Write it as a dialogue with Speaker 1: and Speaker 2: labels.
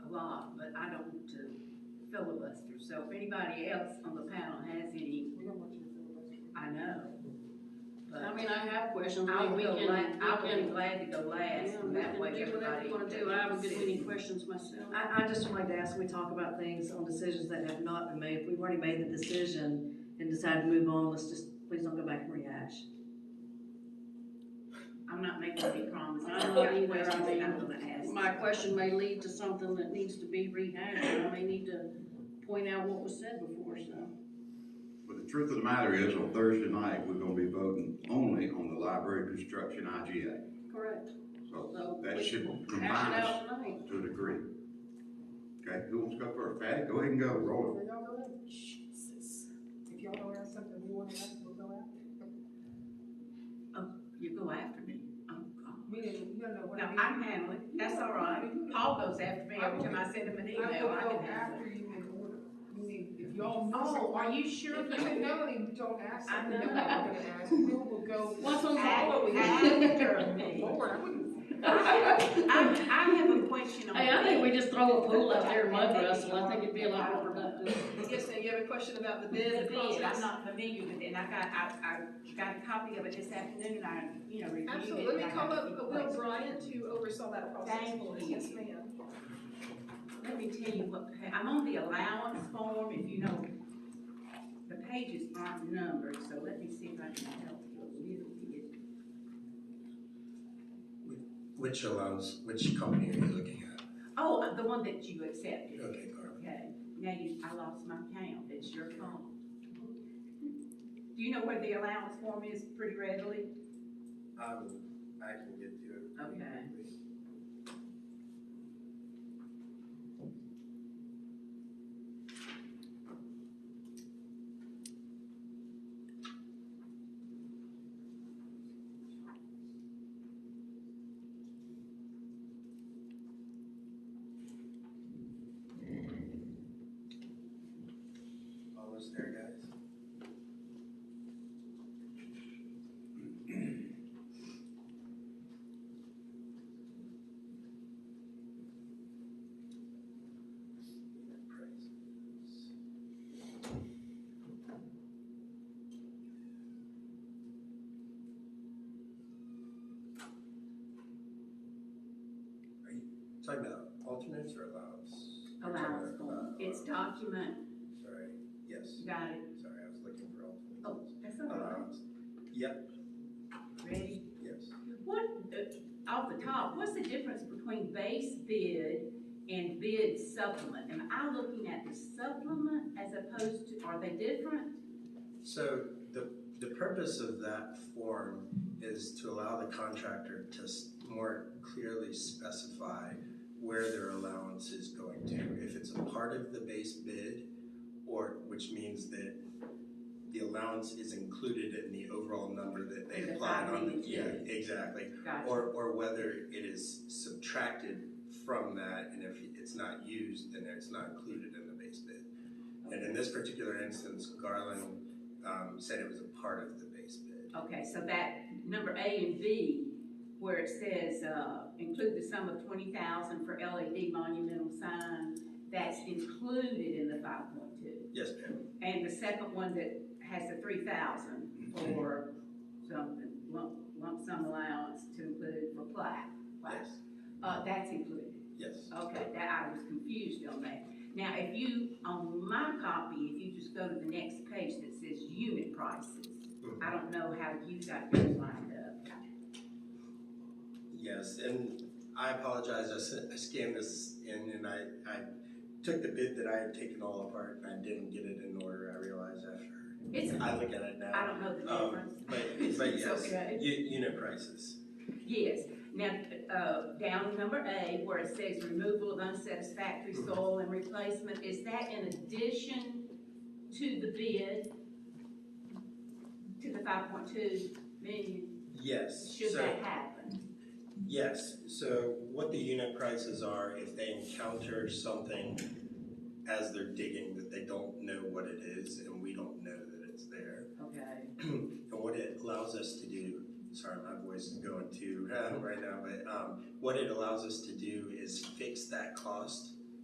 Speaker 1: them to filibuster, so if anybody else on the panel has any,
Speaker 2: We don't want you to filibuster.
Speaker 1: I know.
Speaker 3: I
Speaker 1: But
Speaker 3: mean, I have questions.
Speaker 1: I would
Speaker 3: We
Speaker 1: go
Speaker 3: can-
Speaker 1: la, I
Speaker 3: we
Speaker 1: would
Speaker 3: can-
Speaker 1: be glad to go last,
Speaker 3: Yeah,
Speaker 1: and that
Speaker 3: we
Speaker 1: way
Speaker 3: can do whatever
Speaker 1: everybody.
Speaker 3: you wanna do. I haven't got any questions myself.
Speaker 4: I, I just would like to ask, when we talk about things on decisions that have not been made, if we've already made the decision and decided to move on, let's just, please don't go back and rehash.
Speaker 1: I'm not making any promises,
Speaker 3: I
Speaker 1: I've
Speaker 3: don't
Speaker 1: got
Speaker 3: either, I
Speaker 1: questions that I'm
Speaker 3: mean,
Speaker 1: gonna ask.
Speaker 3: My question may lead to something that needs to be rehashed, and I may need to point out what was said before, so.
Speaker 5: But the truth of the matter is, on Thursday night, we're gonna be voting only on the library construction IGA.
Speaker 3: Correct. So
Speaker 5: So that
Speaker 3: we-
Speaker 5: should
Speaker 3: Hash
Speaker 5: combine
Speaker 3: it out
Speaker 5: us
Speaker 3: tonight.
Speaker 5: to a degree. Okay, who wants to go first? Patty, go ahead and go, roll
Speaker 2: Where y'all go at? If y'all don't have something we wanna ask, we'll go after.
Speaker 1: You go after me, Oh, I'm, I'm.
Speaker 2: We didn't, you don't know what
Speaker 1: No,
Speaker 2: I
Speaker 1: I
Speaker 2: mean.
Speaker 1: can handle it, that's all right. Paul goes after me every time I send him an email, I
Speaker 2: I will go
Speaker 1: can handle it.
Speaker 2: after you in order. You need, if y'all. miss
Speaker 1: Oh,
Speaker 2: something-
Speaker 1: are you sure?
Speaker 2: If you know and you don't ask
Speaker 1: I
Speaker 2: something,
Speaker 1: know.
Speaker 2: then we're gonna ask, we will go.
Speaker 3: What's on the
Speaker 2: After
Speaker 3: board?
Speaker 2: we-
Speaker 1: After me.
Speaker 2: Lord, I wouldn't.
Speaker 1: I, I have a question on.
Speaker 3: Hey, I think we
Speaker 1: bid.
Speaker 3: just throw a pool out there and mud wrestle, I think it'd be a lot more productive.
Speaker 1: Yes, sir, you have a question about the
Speaker 3: bid, the
Speaker 1: bid, I'm
Speaker 3: process.
Speaker 1: not familiar with it, and I got, I, I got a copy of it this afternoon, I, you know, reviewed it.
Speaker 6: Absolutely, let
Speaker 1: and
Speaker 6: me
Speaker 1: I
Speaker 6: call
Speaker 1: got a
Speaker 6: up
Speaker 1: few
Speaker 6: Will
Speaker 1: questions.
Speaker 6: Bryant to oversaw that process
Speaker 1: Thank
Speaker 6: for us,
Speaker 1: you.
Speaker 6: yes ma'am.
Speaker 1: Let me tell you what, pa- I'm on the allowance form, if you know, the pages aren't numbered, so let me see if I can help you a little bit.
Speaker 7: Which allows, which company are you looking at?
Speaker 1: Oh, the one that you accepted.
Speaker 7: Okay, Carl.
Speaker 1: Okay, now you, I lost my count, it's your fault. Do you know where the allowance form is pretty readily?
Speaker 7: Um, I can get to it.
Speaker 1: Okay.
Speaker 7: Almost there, guys. Are you Talking about alternates or allows?
Speaker 1: Allowance form, it's document,
Speaker 7: Sorry, yes,
Speaker 1: you got it,
Speaker 7: sorry, I was looking for alternates.
Speaker 1: oh, that's all right,
Speaker 7: Allowance. Yep,
Speaker 1: ready?
Speaker 7: yes.
Speaker 1: What, uh, off the top, what's the difference between base bid and bid supplement? Am I looking at the supplement as opposed to, are they different?
Speaker 7: So the, the purpose of that form is to allow the contractor to s- more clearly specify where their allowance is going to. If it's a part of the base bid, or, which means that the allowance is included in the overall number that they
Speaker 1: In the
Speaker 7: applied on. the-
Speaker 1: findings,
Speaker 7: Yeah,
Speaker 1: yes.
Speaker 7: exactly.
Speaker 1: Gotcha,
Speaker 7: Or, or whether it is subtracted from that, and if it's not used, then it's not included in the base bid. And in this particular instance, Garland, um, said it was a part of the base bid.
Speaker 1: okay, so that number A and B, where it says, uh, include the sum of twenty thousand for LED monumental sign, that's included in the five point two.
Speaker 7: Yes, ma'am.
Speaker 1: And the second one that has the three thousand for something, lump, lump sum allowance to include for plaque. plaque.
Speaker 7: Yes,
Speaker 1: Uh, that's included,
Speaker 7: yes.
Speaker 1: okay, that, I was confused on that. Now, if you, on my copy, if you just go to the next page that says unit prices,
Speaker 7: Mm-hmm.
Speaker 1: I don't know how you got yours lined up.
Speaker 7: Yes, and I apologize, I sent- I scanned this in and I, I took the bid that I had taken all apart and I didn't get it in order, I realize after.
Speaker 1: It's,
Speaker 7: I look at it
Speaker 1: I
Speaker 7: now.
Speaker 1: don't know the
Speaker 7: Um,
Speaker 1: difference.
Speaker 7: But, but
Speaker 1: It's
Speaker 7: yes,
Speaker 1: okay.
Speaker 7: u- unit prices,
Speaker 1: Yes, now, uh, down number A, where it says removal of unsatisfactory
Speaker 7: Mm-hmm.
Speaker 1: soil and replacement, is that in addition to the bid? To the five point two million,
Speaker 7: yes.
Speaker 1: should
Speaker 7: So-
Speaker 1: that happen?
Speaker 7: Yes, so what the unit prices are, if they encounter something as they're digging that they don't know what it is and we don't know that it's there.
Speaker 1: Okay,
Speaker 7: And what it allows us to do, sorry, my voice is going to, uh, right now, but, um, what it allows us to do is fix that cost